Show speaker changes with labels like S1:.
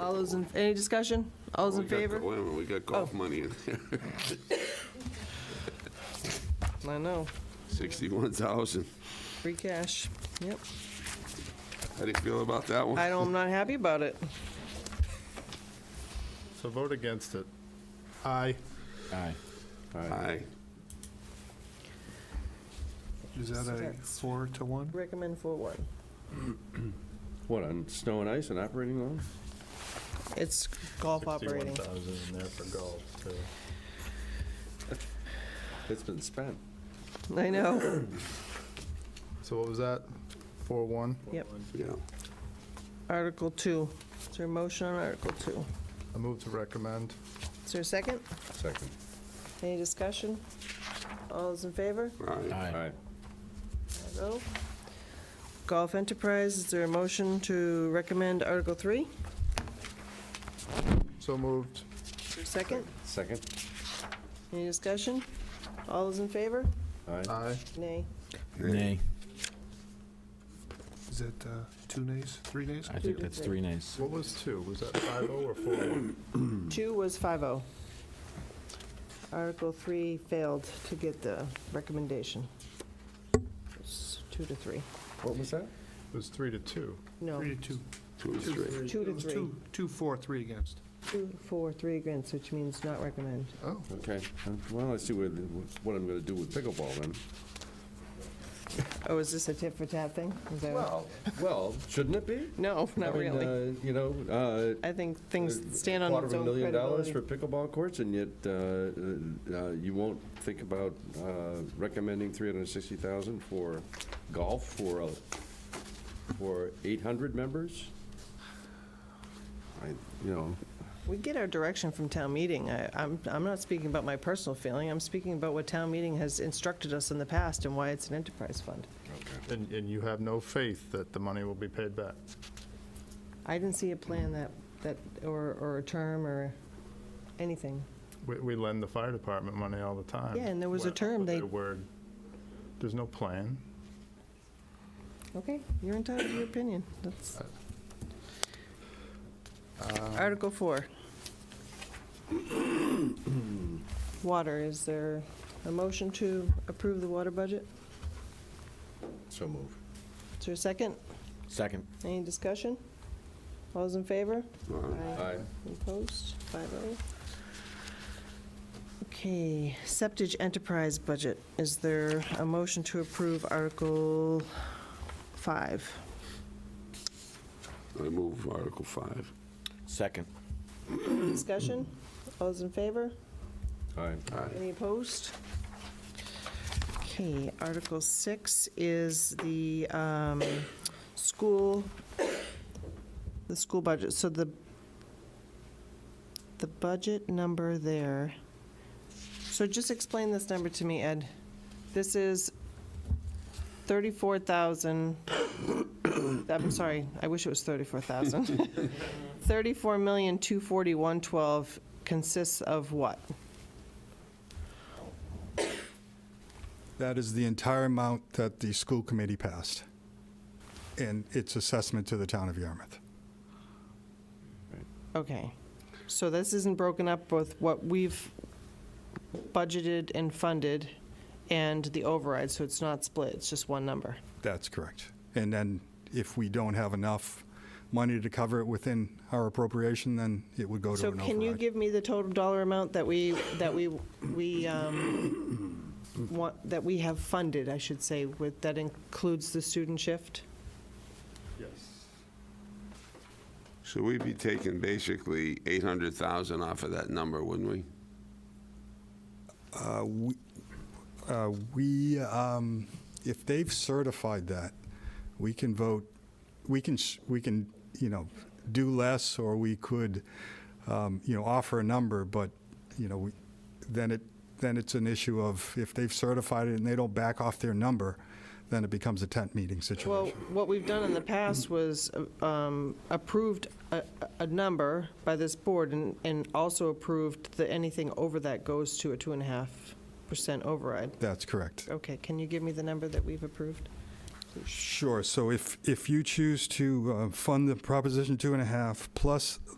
S1: All those in, any discussion? All those in
S2: We got-
S1: favor? Oh.
S2: Wait a minute, we got golf money in there,
S1: I know,
S2: sixty-one thousand.
S1: free cash, yep.
S2: How do you feel about that one?
S1: I don't, I'm not happy about it.
S3: So vote against it. Aye.
S4: Aye.
S2: Aye.
S3: Is that a
S1: Six.
S3: four to one?
S1: Recommend for one.
S5: What, on snow and ice and operating loan?
S1: It's golf operating.
S3: 61,000 in there for golf, too.
S5: It's been spent.
S1: I know,
S3: So what was that? Four, one?
S1: yep.
S2: Yeah,
S1: Article two. Is there a motion on Article two?
S3: I move to recommend.
S1: Is there a second?
S5: Second.
S1: Any discussion? All those in favor?
S2: aye.
S5: Aye.
S1: No. Golf Enterprise, is there a motion to recommend Article three?
S3: So moved.
S1: Is there a second?
S5: Second?
S1: Any discussion? All those in favor?
S5: Aye.
S3: Aye.
S1: Nay.
S4: Nay.
S3: Is it uh, two nays, three nays?
S4: I think that's three nays.
S3: What was two? Was that five oh or four one?
S1: Two was 5-0. Article 3 failed to get the recommendation. It's 2 to 3.
S5: What was that?
S3: It was three to two.
S1: No,
S6: Three to two.
S2: Two and three.
S1: 2 to
S6: It was
S1: 3.
S6: Two, two, four, three against.
S1: 2, 4, 3 against, which means not recommend.
S3: Oh,
S5: Okay, well, let's see what, what I'm gonna do with pickleball then.
S1: Oh, is this a tit for tat thing? Is that what-
S5: Well, well, shouldn't it be?
S1: No, not
S5: I mean,
S1: really.
S5: uh, You know, uh.
S1: I think things stand on its own
S5: Quarter of a million dollars
S1: credibility.
S5: for pickleball courts, and yet, uh, uh, you won't think about, uh, recommending three hundred and sixty thousand for golf for, a- for eight hundred members? I, you know,
S1: We get our direction from town meeting. I- I'm I'm not speaking about my personal feeling, I'm speaking about what town meeting has instructed us in the past and why it's an enterprise fund.
S3: and, and you have no faith that the money will be paid back?
S1: I didn't see a plan that, that, or, or a term or anything.
S3: We, we lend the fire department money all the time.
S1: Yeah, and there was a
S3: Went
S1: term
S3: with
S1: they-
S3: their word. There's no plan.
S1: Okay, you're entitled to your opinion. That's. Article four. Water, is there a motion to approve the water budget?
S5: so move.
S1: Is there a second?
S4: Second.
S1: Any discussion? All those in favor?
S5: Aye.
S1: Opposed? Five oh. Okay, septic enterprise budget. Is there a motion to approve Article five?
S2: I move Article five.
S4: Second.
S1: Discussion? All those in favor?
S5: Aye.
S2: Aye.
S1: Any opposed? Okay, Article 6 is the um, school, the school budget. So the, the budget number there, so just explain this number to me, Ed. This is 34,000, I'm sorry, I wish it was 34,000. 34,241,12 consists of what?
S7: That is the entire amount that the school committee passed in its assessment to the town of Yarmouth.
S1: Okay, so this isn't broken up with what we've budgeted and funded and the override, so it's not split, it's just one number.
S7: That's correct. And then if we don't have enough money to cover it within our appropriation, then it would go to
S1: So
S7: an
S1: can you
S7: override.
S1: give me the total dollar amount that we, that we, we, um, want, that we have funded, I should say, with, that includes the student shift?
S2: Should we be taking basically eight hundred thousand off of that number, wouldn't we?
S7: Uh, we- uh, We, um, if they've certified that, we can vote, we can, s- we can, you know, do less, or we could, um, you know, offer a number, but, you know, we- then it, then it's an issue of if they've certified it and they don't back off their number, then it becomes a tent meeting
S1: Well,
S7: situation.
S1: what we've done in the past was um, approved a, a number by this board and, and also approved that anything over that goes to a two and a half percent override.
S7: That's correct.
S1: Okay, can you give me the number that we've approved?
S7: Sure, so if, if you choose to uh, fund the Proposition Two and a Half plus